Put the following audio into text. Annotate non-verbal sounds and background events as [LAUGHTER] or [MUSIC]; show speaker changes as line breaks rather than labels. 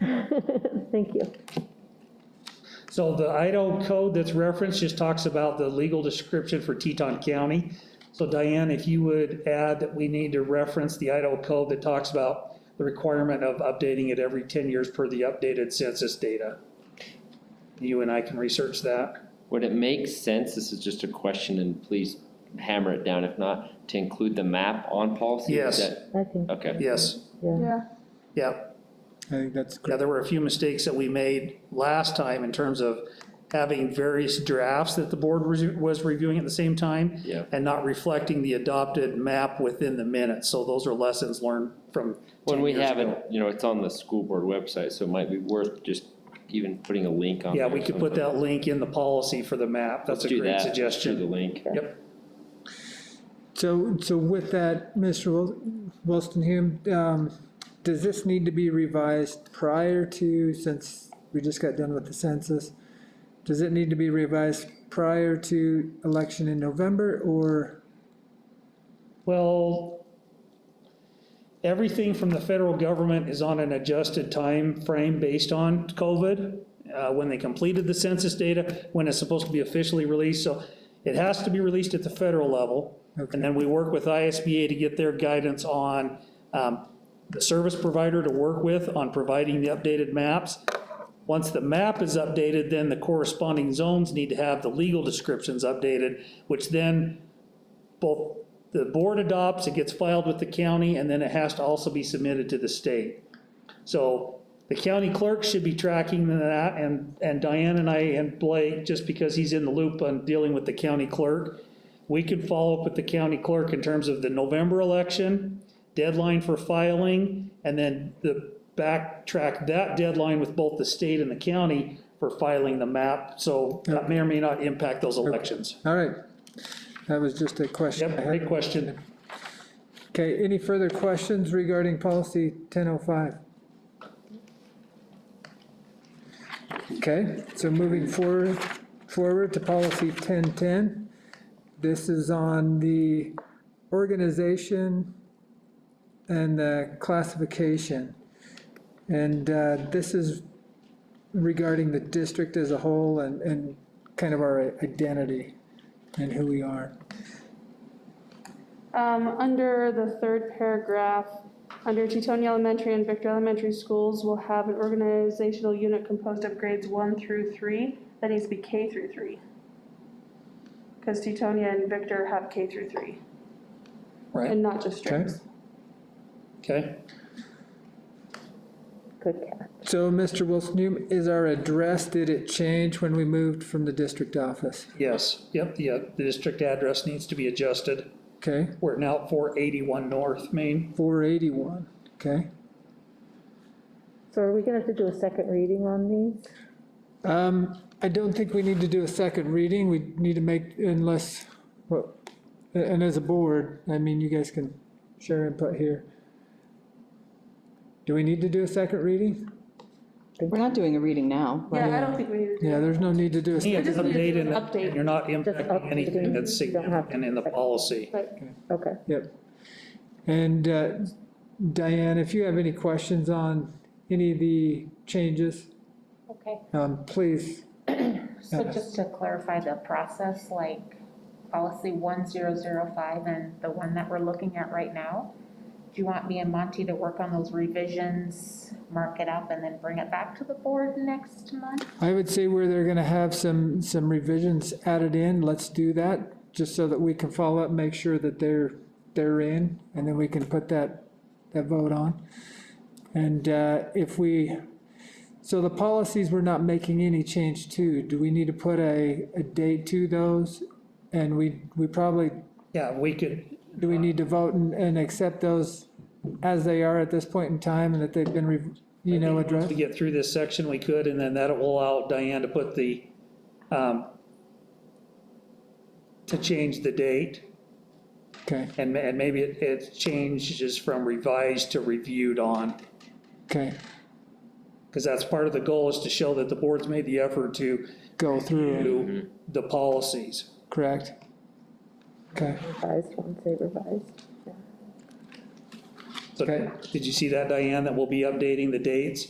[LAUGHS] Thank you.
So the Idaho code that's referenced just talks about the legal description for Teton County. So Diane, if you would add that we need to reference the Idaho code that talks about the requirement of updating it every 10 years per the updated census data. You and I can research that.
Would it make sense, this is just a question, and please hammer it down if not, to include the map on policy?
Yes.
Is that-
I think,
Okay,
Yes,
yeah.
Yeah,
yeah.
I think that's
Yeah,
correct.
there were a few mistakes that we made last time in terms of having various drafts that the board was- was reviewing at the same time.
Yeah.
And not reflecting the adopted map within the minutes. So those are lessons learned from.
when
10
we
years
have
ago.
it, you know, it's on the school board website, so it might be worth just even putting a link on.
Yeah,
there
we
or
could put
something.
that link in the policy for the map. That's
Let's
a
do
great
that. Let's Do the
suggestion.
link.
Yep,
So, so with that, Mr. Wil- Wilston, um, does this need to be revised prior to, since we just got done with the census? Does it need to be revised prior to election in November or,
well, everything from the federal government is on an adjusted time frame based on COVID, uh, when they completed the census data, when it's supposed to be officially released. So it has to be released at the federal level. And then we work with ISBA to get their guidance on um, the service provider to work with on providing the updated maps. Once the map is updated, then the corresponding zones need to have the legal descriptions updated, which then both the board adopts, it gets filed with the county, and then it has to also be submitted to the state. So the county clerk should be tracking that, and, and Diane and I and Blake, just because he's in the loop on dealing with the county clerk, we could follow up with the county clerk in terms of the November election, deadline for filing, and then the backtrack that deadline with both the state and the county for filing the map. So that may or may not impact those elections.
all right? That was just a question. I
Yep,
had.
great question.
Okay, any further questions regarding policy 1005? Okay, so moving forward, forward to policy 1010. This is on the organization and the classification. And uh, this is regarding the district as a whole and, and kind of our identity and who we are.
um, under the third paragraph, under Teton Elementary and Victor Elementary Schools will have an organizational unit composed of grades one through three, that needs to be K through three. Because Tetonia and Victor have K through three,
Right,
and not just
Okay?
strings.
okay.
Good catch.
So, Mr. Wilson, you- is our address, did it change when we moved from the district office?
Yes, yep, the, uh, the district address needs to be adjusted.
Okay,
We're now 481 North Main.
481, okay?
So are we gonna have to do a second reading on these?
Um, I don't think we need to do a second reading, we need to make, unless, well, a- and as a board, I mean, you guys can share input here. Do we need to do a second reading?
We're not doing a reading now.
Yeah, I don't think we need to do
Yeah, there's no need to do a,
Yeah,
sec-
just need
update
to do
and
an update.
You're not
Just
impacting anything
updating.
that's
You don't have to-
significant in the policy.
Okay,
yep. And uh, Diane, if you have any questions on any of the changes,
Okay,
um, please
so just to clarify the process, like policy one zero zero five and the one that we're looking at right now, do you want me and Monty to work on those revisions, mark it up, and then bring it back to the board next month?
I would say where they're gonna have some, some revisions added in, let's do that, just so that we can follow up, make sure that they're, they're in, and then we can put that, that vote on. And uh, if we, so the policies we're not making any change to, do we need to put a, a date to those? And we, we probably,
Yeah, we could,
do we need to vote and, and accept those as they are at this point in time, and that they've been, re- you know, addressed?
to get through this section, we could, and then that will allow Diane to put the, um, to change the date,
Okay,
and, ma- and maybe it, it changes from revised to reviewed on.
okay,
Because that's part of the goal is to show that the board's made the effort to
go through,
do the policies.
correct? Okay.
revised ones, they revised.
So
Okay.
did you see that, Diane, that we'll be updating the dates?